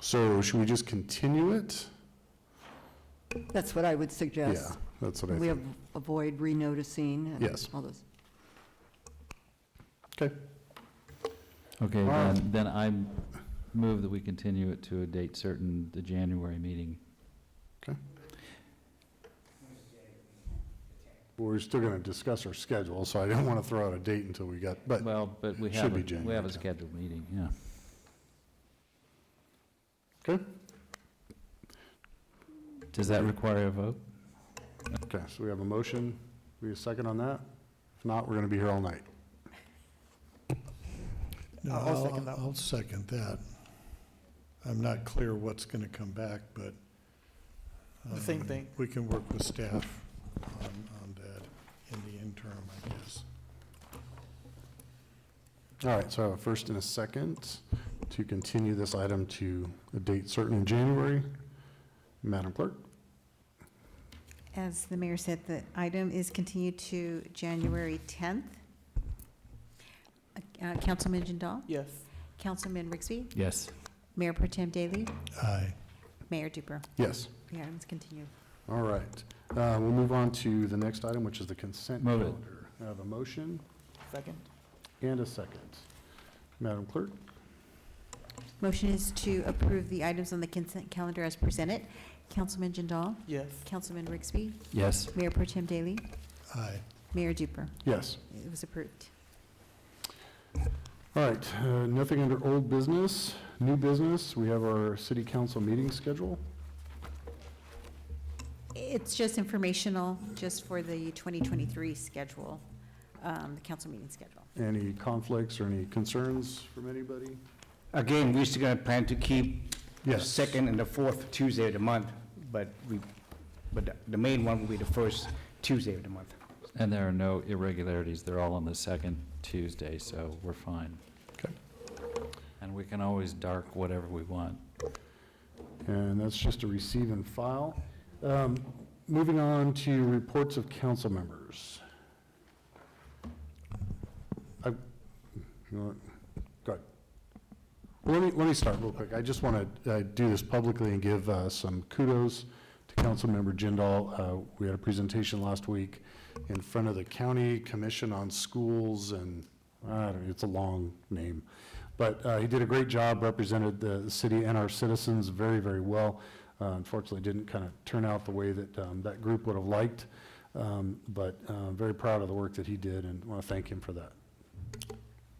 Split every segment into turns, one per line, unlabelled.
So should we just continue it?
That's what I would
Yeah,
suggest.
that's what I
We
think.
av- avoid renoticing and
Yes.
all those.
Okay,
Okay,
Wow.
then, then I move that we continue it to a date certain, the January meeting.
Well, we're still going to discuss our schedule, so I don't want to throw out a date until we got, but,
Well, but we
Should
have,
be
a- we
January
have a
tenth.
scheduled meeting, yeah.
okay?
Does that require a vote?
Okay, so we have a motion. We have a second on that? If not, we're going to be here all night.
No,
I'll- I'll second that
I'll second that. I'm not clear what's going to come back, but.
The same
um,
thing.
We can work with staff on, on that in the interim, I guess.
All right, so I have a first and a second to continue this item to a date certain in January. Madam Clerk?
As the mayor said, the item is continued to January 10th. Uh, Councilman Jindal?
Yes.
Councilman Rixby?
Yes.
Mayor Pro Tem Daly?
Aye.
Mayor Duper?
Yes,
The item's continued.
all right. Uh, We'll move on to the next item, which is the consent
Move it.
calendar. I have a motion
Second?
and a second. Madam Clerk?
Motion is to approve the items on the consent calendar as presented. Councilman Jindal?
Yes.
Councilman Rixby?
Yes.
Mayor Pro Tem Daly?
Aye.
Mayor Duper?
Yes.
It was approved.
All right, uh, nothing under old business, new business. We have our city council meeting schedule.
It's just informational, just for the 2023 schedule, um, the council meeting schedule.
Any conflicts or any concerns from anybody?
Again, we're still going to plan to keep the
Yes.
second and the fourth Tuesday of the month, but we, but the- the main one will be the first Tuesday of the month.
And there are no irregularities, they're all on the second Tuesday, so we're fine.
Okay.
And we can always dark whatever we want.
And that's just a receive and file. Um, Moving on to reports of council members. I- you want- Go ahead. Well, Let me, let me start real quick. I just want to do this publicly and give uh, some kudos to Councilmember Jindal. Uh, We had a presentation last week in front of the County Commission on Schools and, I don't know, it's a long name. But uh, he did a great job, represented the city and our citizens very, very well. Uh, Unfortunately, didn't kind of turn out the way that um, that group would have liked, Um, but uh, very proud of the work that he did and want to thank him for that.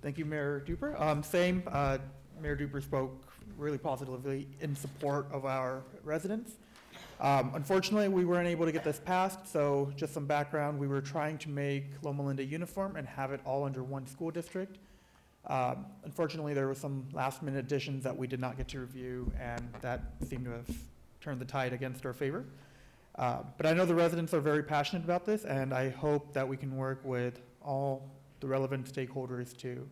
Thank you, Mayor Duper. Um, Same, uh, Mayor Duper spoke really positively in support of our residents. Um, Unfortunately, we weren't able to get this passed, so just some background, we were trying to make Loma Linda uniform and have it all under one school district. Um, Unfortunately, there were some last-minute additions that we did not get to review, and that seemed to have turned the tide against our favor. Uh, But I know the residents are very passionate about this, and I hope that we can work with all the relevant stakeholders to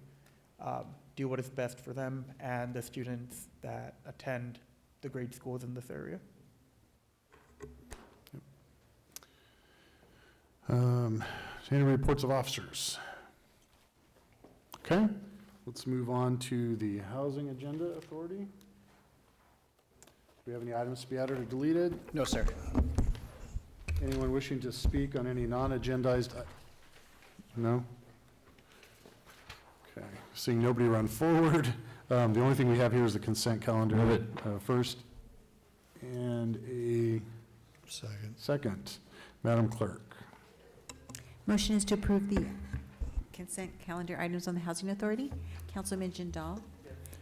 um, do what is best for them and the students that attend the grade schools in this area.
Um, Any reports of officers? Okay, let's move on to the Housing Agenda Authority. Do we have any items to be added or deleted?
No, sir.
Anyone wishing to speak on any non-agendized? i- No? Okay, seeing nobody run forward, um, the only thing we have here is the consent calendar.
Move
uh, First, and a
Second.
second. Madam Clerk?
Motion is to approve the consent calendar items on the Housing Authority. Councilman Jindal?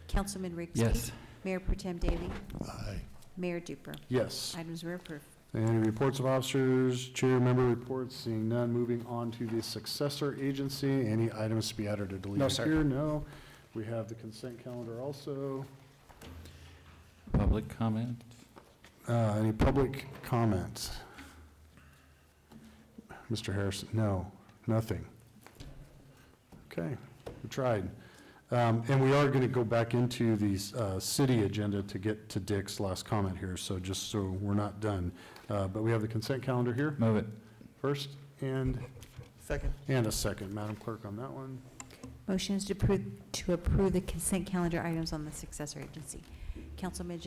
Councilman Rigsby?
Yes.
Mayor Pro Tem Daly?
Aye.
Mayor Duper?
Yes.
Items were approved.
Any reports of officers, chair member reports, seeing none, moving on to the successor agency, any items to be added or deleted?
sir.
Here, no. We have the consent calendar also.
Public comment?
Uh, any public comments? Mr. Harrison, no, nothing. Okay, we tried. Um, and we are gonna go back into the, uh, city agenda to get to Dick's last comment here, so just so we're not done. Uh, but we have the consent calendar here,
Move it.
first and
Second,
And a second, Madam Clerk, on that one.
Motion is to approve, to approve the consent calendar items on the successor agency. Councilman